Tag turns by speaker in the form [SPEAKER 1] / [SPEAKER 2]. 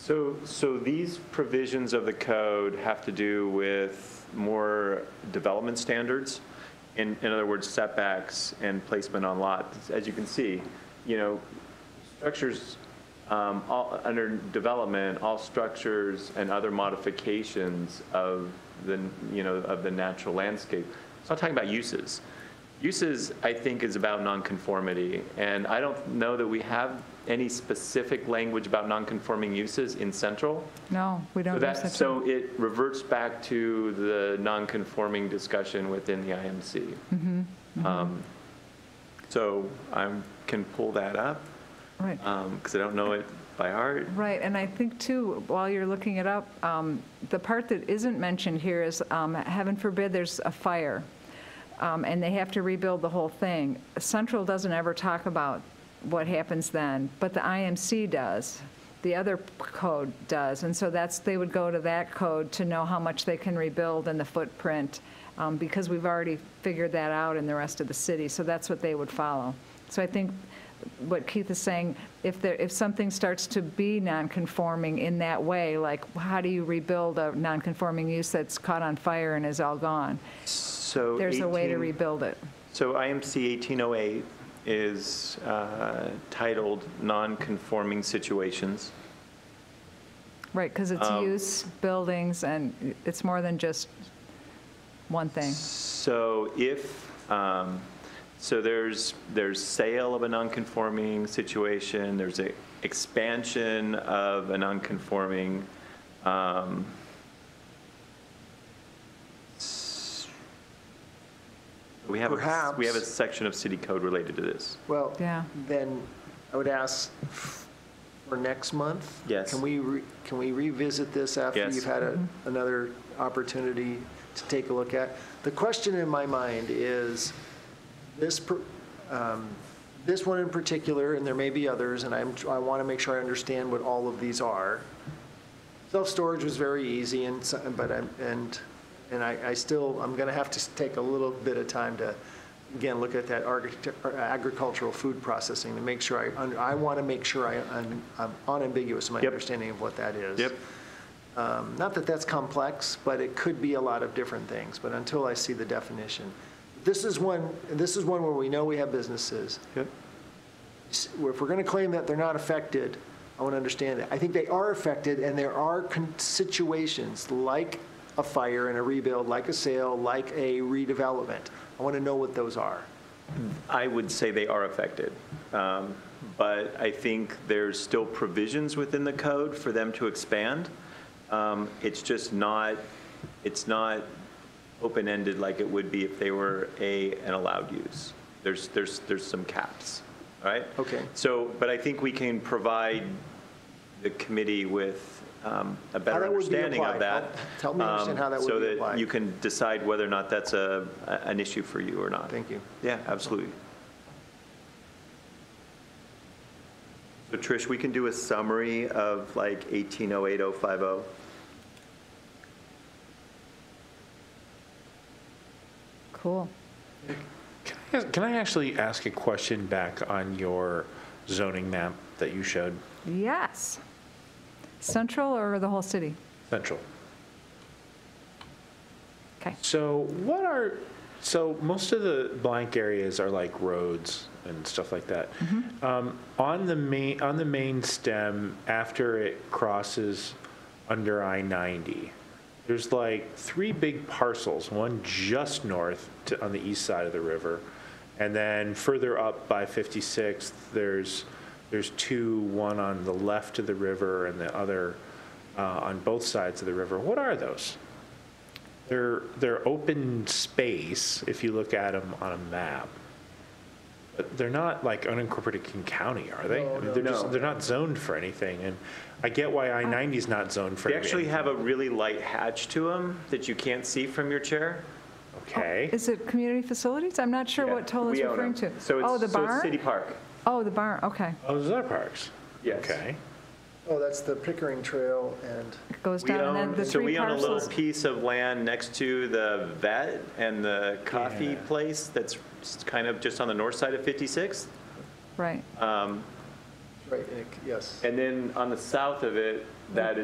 [SPEAKER 1] So, so these provisions of the code have to do with more development standards? In, in other words, setbacks and placement on lots. As you can see, you know, structures, um, all, under development, all structures and other modifications of the, you know, of the natural landscape. It's not talking about uses. Uses, I think, is about nonconformity, and I don't know that we have any specific language about nonconforming uses in central.
[SPEAKER 2] No, we
[SPEAKER 1] So
[SPEAKER 2] don't use
[SPEAKER 1] that,
[SPEAKER 2] such a,
[SPEAKER 1] so it reverts back to the nonconforming discussion within the IMC. Um, So I can pull that up,
[SPEAKER 2] right.
[SPEAKER 1] because um, I don't know it by heart.
[SPEAKER 2] Right, and I think too, while you're looking it up, um, the part that isn't mentioned here is, um, heaven forbid, there's a fire, um, and they have to rebuild the whole thing. Central doesn't ever talk about what happens then, but the IMC does. The other p- code does, and so that's, they would go to that code to know how much they can rebuild and the footprint, um, because we've already figured that out in the rest of the city, so that's what they would follow. So I think what Keith is saying, if there, if something starts to be nonconforming in that way, like how do you rebuild a nonconforming use that's caught on fire and is all gone?
[SPEAKER 1] So
[SPEAKER 2] There's a way to
[SPEAKER 1] 18
[SPEAKER 2] rebuild it.
[SPEAKER 1] So IMC 1808 is uh, titled Nonconforming Situations.
[SPEAKER 2] Right, because it's
[SPEAKER 1] Um,
[SPEAKER 2] use, buildings, and it's more than just one thing.
[SPEAKER 1] So if, um, so there's, there's sale of a nonconforming situation, there's a expansion of a nonconforming, um, s- we have, a- we have a
[SPEAKER 3] Perhaps.
[SPEAKER 1] section of city code related to this.
[SPEAKER 3] Well,
[SPEAKER 2] Yeah.
[SPEAKER 3] then I would ask for next month?
[SPEAKER 1] Yes.
[SPEAKER 3] Can we, re- can we revisit this after
[SPEAKER 1] Yes.
[SPEAKER 3] you've had a- another opportunity to take a look at? The question in my mind is, this, per- um, this one in particular, and there may be others, and I'm, I want to make sure I understand what all of these are. Self-storage was very easy and, so- but I'm, and, and I, I still, I'm going to have to take a little bit of time to, again, look at that architect- or agricultural food processing to make sure I, un- I want to make sure I, un- I'm unambiguous in my
[SPEAKER 1] Yep.
[SPEAKER 3] understanding of what that is.
[SPEAKER 1] Yep.
[SPEAKER 3] Um, Not that that's complex, but it could be a lot of different things, but until I see the definition. This is one, this is one where we know we have businesses.
[SPEAKER 1] Yep.
[SPEAKER 3] S- If we're going to claim that they're not affected, I want to understand it. I think they are affected, and there are con- situations like a fire and a rebuild, like a sale, like a redevelopment. I want to know what those are.
[SPEAKER 1] I would say they are affected. Um, But I think there's still provisions within the code for them to expand. Um, It's just not, it's not open-ended like it would be if they were a, an allowed use. There's, there's, there's some caps, all right?
[SPEAKER 3] Okay.
[SPEAKER 1] So, but I think we can provide the committee with um, a better
[SPEAKER 3] that would be
[SPEAKER 1] understanding of
[SPEAKER 3] applied.
[SPEAKER 1] that.
[SPEAKER 3] Help- help me understand
[SPEAKER 1] um,
[SPEAKER 3] how that would be
[SPEAKER 1] So that
[SPEAKER 3] applied.
[SPEAKER 1] you can decide whether or not that's a, a- an issue for you or not.
[SPEAKER 3] Thank you.
[SPEAKER 1] Yeah, absolutely. So Trish, we can do a summary of like 1808050.
[SPEAKER 2] Cool.
[SPEAKER 4] Can I actually ask a question back on your zoning map that you showed,
[SPEAKER 2] Yes. Central or the whole city?
[SPEAKER 4] Central?
[SPEAKER 2] Okay.
[SPEAKER 4] So what are, so most of the blank areas are like roads and stuff like that. Um, On the main, on the main stem, after it crosses under I-90, there's like three big parcels, one just north to, on the east side of the river. And then further up by 56th, there's, there's two, one on the left of the river and the other uh, on both sides of the river. What are those? They're, they're open space if you look at them on a map. But they're not like unincorporated King County, are they? I mean, They're
[SPEAKER 1] no.
[SPEAKER 4] just, they're not zoned for anything. And I get why I-90 is not zoned for
[SPEAKER 1] They
[SPEAKER 4] anything.
[SPEAKER 1] actually have a really light hatch to them that you can't see from your chair.
[SPEAKER 4] Okay.
[SPEAKER 2] Is it community facilities? I'm not sure what Tola's
[SPEAKER 1] We own 'em.
[SPEAKER 2] referring to.
[SPEAKER 1] So
[SPEAKER 2] Oh, the
[SPEAKER 1] it's, so it's
[SPEAKER 2] barn?
[SPEAKER 1] City Park.
[SPEAKER 2] Oh, the barn, okay.
[SPEAKER 4] Oh, those are parks?
[SPEAKER 1] Yes.
[SPEAKER 4] Okay.
[SPEAKER 3] Oh, that's the Pickering Trail and.
[SPEAKER 2] It goes
[SPEAKER 1] We
[SPEAKER 2] down and then
[SPEAKER 1] own,
[SPEAKER 2] the
[SPEAKER 1] so
[SPEAKER 2] three
[SPEAKER 1] we own a little
[SPEAKER 2] parcels.
[SPEAKER 1] piece of land next to the vet and the coffee
[SPEAKER 4] Yeah.
[SPEAKER 1] place that's kind of just on the north side of 56th.
[SPEAKER 2] Right.
[SPEAKER 3] Right, and it- yes.
[SPEAKER 1] And then on the south of it, that